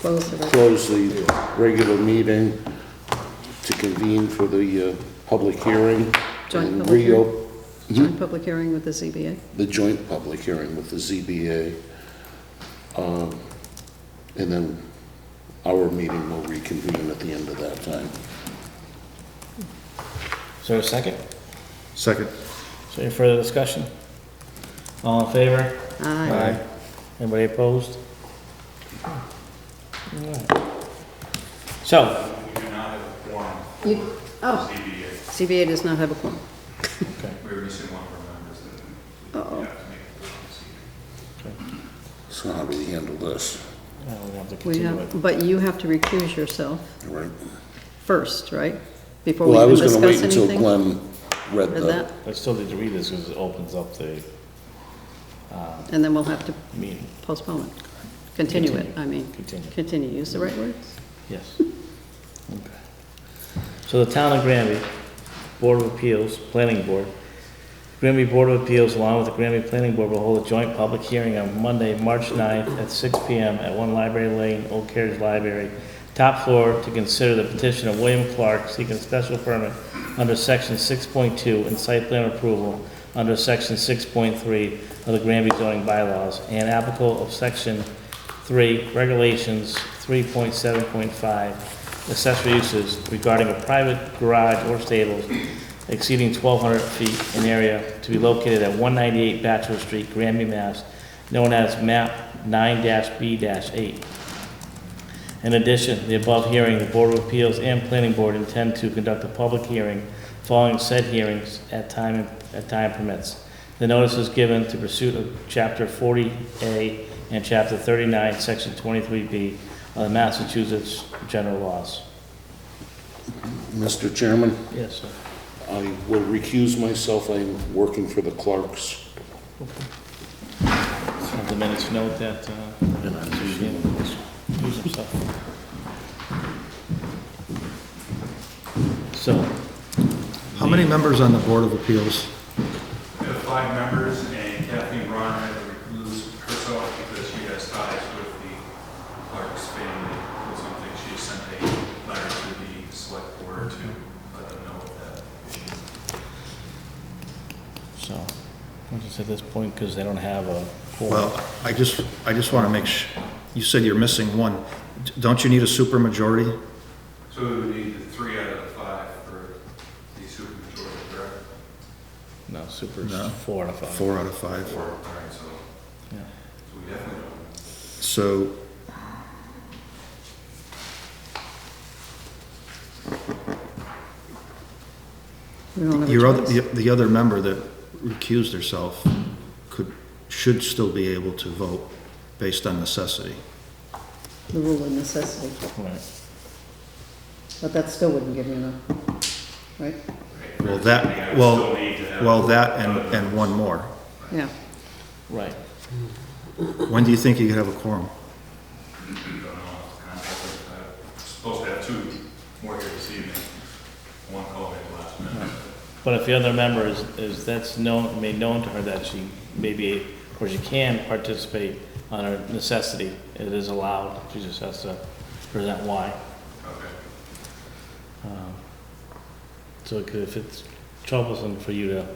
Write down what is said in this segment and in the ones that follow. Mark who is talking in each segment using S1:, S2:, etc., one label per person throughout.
S1: Close the record.
S2: close the regular meeting to convene for the uh, public hearing.
S1: Joint
S2: and
S1: public hearing?
S2: reop-
S1: Joint public hearing with the ZBA.
S2: The joint public hearing with the ZBA. um, And then our meeting will reconvene at the end of that time.
S3: Is there a second?
S4: Second.
S3: Is there any further discussion? All in favor?
S1: Aye.
S3: Anybody opposed? Alright. So,
S5: We do not have a quorum
S1: You-
S5: for
S1: Oh,
S5: ZBA.
S1: ZBA does not have a quorum.
S5: We were missing one of our members that
S1: Uh-oh.
S5: we have to make a quorum this evening.
S2: So how do we handle this?
S3: uh, we have to
S1: We
S3: continue it.
S1: have, but you have to recuse yourself
S2: All right.
S1: first, right? Before we
S2: Well, I
S1: can
S2: was gonna wait
S1: discuss
S2: until
S1: anything? Read
S2: Glenn read the,
S1: that,
S3: I still need to read this because it opens up the
S1: and then we'll have to
S3: meeting.
S1: postpone it. Continue it, I mean.
S3: Continue.
S1: Continue, use the right words.
S3: Yes. Okay. So the Town of Granby Board of Appeals, Planning Board, Granby Board of Appeals along with the Granby Planning Board will hold a joint public hearing on Monday, March 9th at 6 PM at One Library Lane, Old Carriage Library, top floor to consider the petition of William Clark seeking special permit under section 6.2 and site plan approval under section 6.3 of the Granby zoning bylaws and applicable of section 3, regulations 3.7.5, accessory uses regarding a private garage or stables exceeding 1,200 feet in area to be located at 198 Bachelor Street, Granby, Mass., known as map 9-B-8. In addition, the above hearing, the Board of Appeals and Planning Board intend to conduct a public hearing following said hearings at time, at time permits. The notice is given to pursuit of Chapter 40A and Chapter 39, Section 23B of the Massachusetts General Laws.
S2: Mr. Chairman,
S3: Yes, sir.
S2: I will recuse myself. I'm working for the clerks.
S3: Have the minutes note that, uh,
S2: And I'm
S3: Shannon
S2: using
S3: was- used himself. So,
S4: How many members on the Board of Appeals?
S5: We have five members, and Kathleen Ron had to recluse herself because she has ties with the Clark's family or something. She sent a letter to the select board to let them know of that issue.
S3: so, I'm just at this point, because they don't have a. quorum.
S4: Well, I just, I just want to make sh you said you're missing one. Don't you need a supermajority?
S5: So we would need the three out of the five for the supermajority, correct?
S3: No, super
S4: No.
S3: four out of five.
S4: Four out of five.
S5: Four, all right, so,
S3: Yeah.
S5: so we definitely don't.
S4: So,
S1: We don't have a
S4: your other,
S1: choice.
S4: the the other member that recused herself could, should still be able to vote based on necessity.
S1: The rule of necessity,
S3: Right.
S1: but that still wouldn't give you enough, right?
S5: right?
S4: Well,
S5: I
S4: that,
S5: would
S4: well,
S5: still need to have-
S4: well, that and, and one more.
S1: Yeah,
S3: Right.
S4: When do you think you could have a quorum?
S5: I don't know, it's kind of like, uh, supposed to have two more here this evening. One called in last minute.
S3: But if the other member is, is that's known, made known to her that she maybe, or she can participate on her necessity, it is allowed, she just has to present why.
S5: Okay.
S3: Um, So it could- if it's troublesome for you to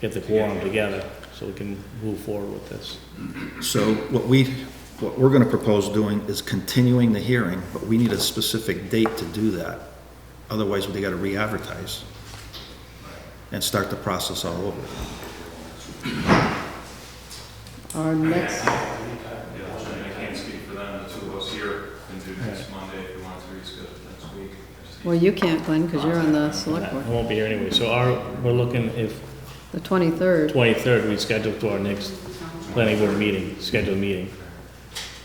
S3: get the quorum together, so we can move forward with this.
S4: So what we, what we're gonna propose doing is continuing the hearing, but we need a specific date to do that. Otherwise, we gotta re-advertise and start the process all over.
S1: our next,
S5: Yeah, I can't speak for them, the two of us here can do next Monday if you want to reschedule next week.
S1: well, you can't, Glenn, because you're on the select board.
S3: I won't be here anyway, so our, we're looking, if
S1: The twenty-third,
S3: twenty-third, we schedule to our next planning board meeting, scheduled meeting.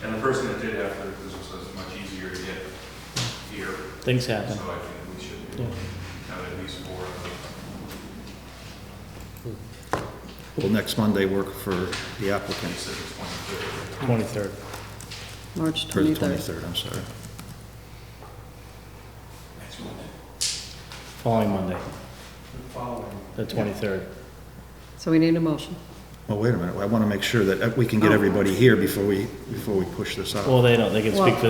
S5: And the person that did have the recusal says it's much easier to get here,
S3: Things
S5: so I
S3: happen.
S5: think we should be able to have at least four. of them.
S4: Will next Monday work for the applicants?
S3: Twenty-third.
S1: March
S4: For the
S1: twenty-third.
S4: twenty-third, I'm sorry.
S3: Following Monday. The twenty-third.
S1: So we need a motion.
S4: Well, wait a minute, I wanna make sure that we can get
S1: Oh.
S4: everybody here before we, before we push this out.
S3: Well, they don't, they can
S1: Well-
S3: speak for